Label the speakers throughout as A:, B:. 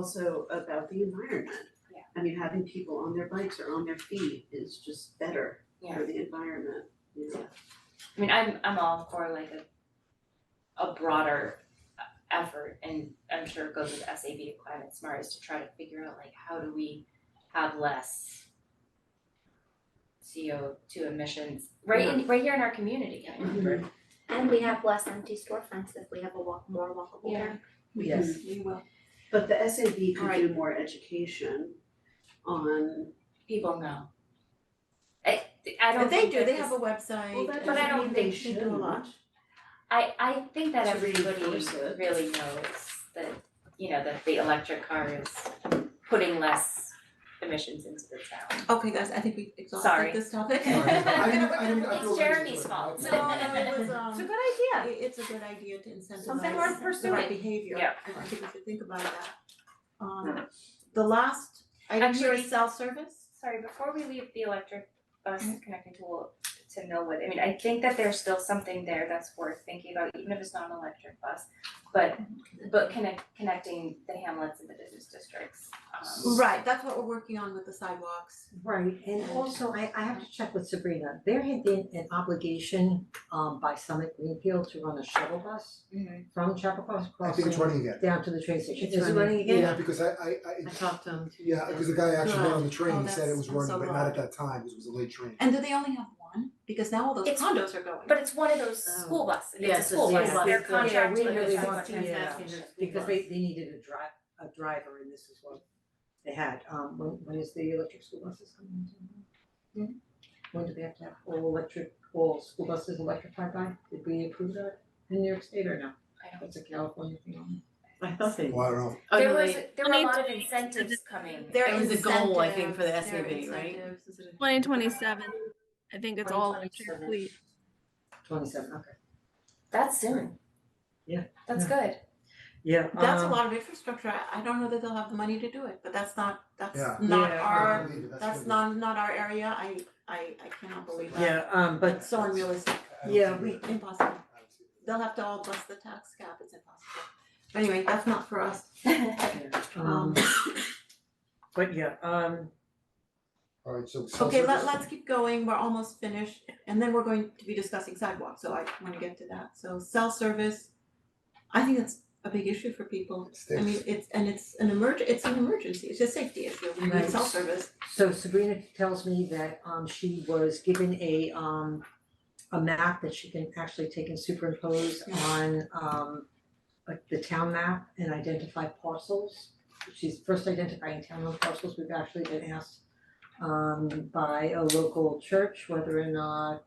A: also about the environment.
B: Yeah.
A: I mean, having people on their bikes or on their feet is just better
B: Yeah.
A: for the environment, you know?
B: I mean, I'm I'm all for like a a broader effort and I'm sure it goes with SAB to climate smart is to try to figure out like how do we have less CO two emissions right in right here in our community. I
C: Mm-hmm.
B: mean,
A: Mhm.
D: And we have less empty storefronts if we have a walk, more walkable
B: Yeah.
D: area.
A: Yes,
C: We will.
A: but the SAB could do
B: Right.
A: more education on,
B: people know. I I don't
C: But they
B: think
C: do,
B: that
C: they
B: this-
C: have a website.
A: well, that
B: but I
A: doesn't
B: don't
A: mean they
C: think they
A: should.
C: do a lot.
B: I I think that
A: To
B: everybody
A: reinforce it.
B: really knows that, you know, that the electric car is putting less emissions into the town.
C: Okay, guys, I think we
B: Sorry.
C: exhausted this topic.
E: Sorry, I didn't, I didn't, I
B: It's
E: feel like
B: Jeremy's
E: it's-
B: fault.
C: No, no, it was, um,
B: It's a good idea.
C: it- it's a good idea to incentivize
B: Something worth
C: the right
B: pursuing.
C: behavior,
B: Yeah.
C: and I think we should think about that. Um, the last item here
B: Actually-
C: is self-service,
B: Sorry, before we leave the electric bus connecting tool to Millwood, I mean, I think that there's still something there that's worth thinking about, even if it's not an electric bus. But but connect connecting the hamlets and the business districts, um,
C: right, that's what we're working on with the sidewalks.
F: Right, and also I I have to check with Sabrina, there had been an obligation um by Summit Greenfield to run a shuttle bus
B: Mhm.
F: from Chappaqua
E: I think it's
F: Crossing
E: running again.
F: down to the train station,
C: It's
F: is it running again?
E: Yeah, because I, I, I,
F: I talked to him.
E: yeah, because the guy actually went on the
C: Oh,
E: train, he said it
C: that's-
E: was
C: I'm
E: running,
C: so
E: but
C: wrong.
E: not at that time, because it was a late train.
C: And do they only have one? Because now all those
B: It's-
C: condos are going.
B: but it's one of those school buses,
F: Yes,
B: it's a
F: it's-
B: school
F: yes,
B: bus, they're
F: it's- yeah, we
B: contracted with
F: really
B: the
F: want to,
B: Chappaqua
F: yeah,
B: Township.
F: Because they they needed a drive, a driver and this is what they had, um when when is the electric school buses coming into? town? When do they have to have all electric, all school buses electrified by, did we approve that in New York State or no?
B: I don't
F: That's a California thing.
G: I thought they.
E: Well, I don't know,
G: Oh,
B: There
G: no,
B: was,
G: they-
B: there were a
H: Need
B: lot of
H: to-
B: incentives coming.
G: There That was the goal, I think, for the
C: incentives, there are
G: SAB, right?
C: incentives, is it a-
H: Twenty twenty seven. I think it's all electric
B: 2027.
H: fleet.
F: Twenty seven, okay.
B: That's soon.
F: Yeah.
B: That's good.
F: Yeah,
C: That's a lot of infrastructure, I- I don't know that they'll have the money to do it, but that's not, that's
E: Yeah.
C: not
F: Yeah.
C: our,
E: I believe it,
C: that's
E: gonna
C: not, not our area, I, I, I cannot believe that.
F: Yeah, um,
E: be-
F: but
C: It's so unrealistic,
E: I don't
F: Yeah,
E: see
F: we-
E: it.
C: impossible.
E: I don't see it.
C: They'll have to all bust the tax cap, it's impossible. But Anyway, that's not for us. Um,
F: um, but yeah, um,
E: Alright, so.
C: okay,
E: self-service.
C: let, let's keep going, we're almost finished, and then we're going to be discussing sidewalks, so I wanna get to that. So self-service, I think that's a big issue for people. I mean, it's, and it's an emerg, it's an emergency, it's a safety issue, we need
F: Right.
C: self-service.
F: so Sabrina tells me that, um, she was given a, um, a map that she can actually take and superimpose
C: Yeah.
F: on, um, like the town map and identify parcels. She's first identifying town owned parcels, we've actually been asked, um, by a local church whether or not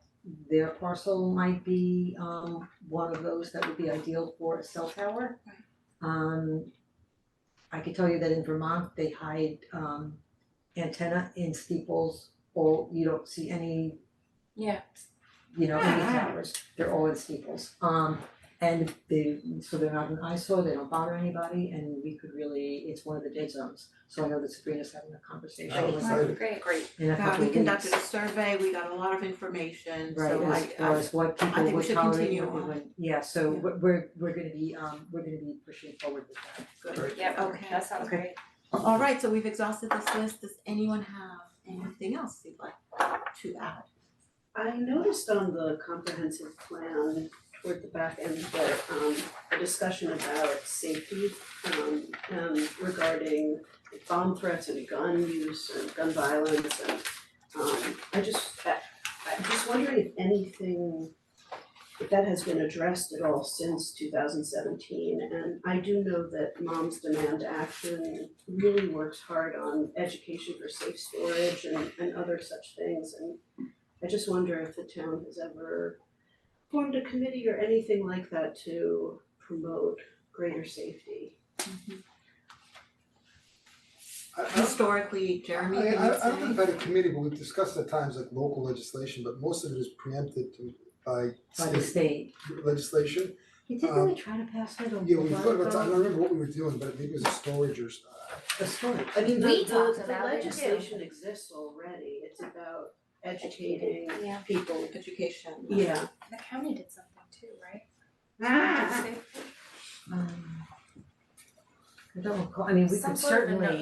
F: their parcel might be, um, one of those that would be ideal for a cell tower.
C: Right.
F: Um, I can tell you that in Vermont, they hide um antenna in steeples, or you don't see any,
B: Yeah.
F: you know, any
C: Yeah.
F: towers, they're all in steeples. Um and they, so they're not an eyesore, they don't bother anybody, and we could really, it's one of the dead zones. So I know that Sabrina's having a conversation
E: Oh,
F: with
E: exciting.
F: her
B: Great.
C: Great.
F: in a couple
C: God, we
F: of
C: conducted a
F: weeks.
C: survey, we got a lot of information, so
F: Right,
C: I,
F: as far
C: I,
F: as what
C: think
F: people
C: we
F: would
C: should
F: tolerate,
C: continue
F: what they
C: on.
F: wouldn't, yeah, so
C: Yeah.
F: we're we're we're gonna be um, we're gonna be pushing forward with that.
C: good.
B: Yep,
C: Okay.
B: that sounds
F: Okay.
B: great.
C: All right, so we've exhausted this list. Does anyone have anything else they'd like to add?
A: I noticed on the comprehensive plan toward the back end that um a discussion about safety um and regarding bomb threats and gun use and gun violence and um I just I I'm just wondering if anything if that has been addressed at all since two thousand seventeen and I do know that Moms Demand Action really works hard on education for safe storage and and other such things and I just wonder if the town has ever formed a committee or anything like that to promote greater safety.
E: I- I don't-
C: Historically, Jeremy,
E: I
C: can
E: I I don't
C: you
E: think
C: say?
E: about a committee, but we've discussed at times like local legislation, but most of it is preempted to- by
F: By
E: state
F: the state,
E: legislation.
F: you didn't
E: Um,
F: really try to pass that on
E: Yeah, we thought about, I don't remember what we were doing, but maybe it was a storage or, s-
F: a story.
A: I mean,
B: We
A: the
B: talked
A: the the
B: about it too.
A: legislation exists already, it's about educating
B: Yeah.
A: people.
C: Education.
A: Yeah.
B: The county did something too, right?
A: Ah.
F: Um, I don't recall, I mean, we
D: Some
F: could
D: sort of a
F: certainly.
D: no-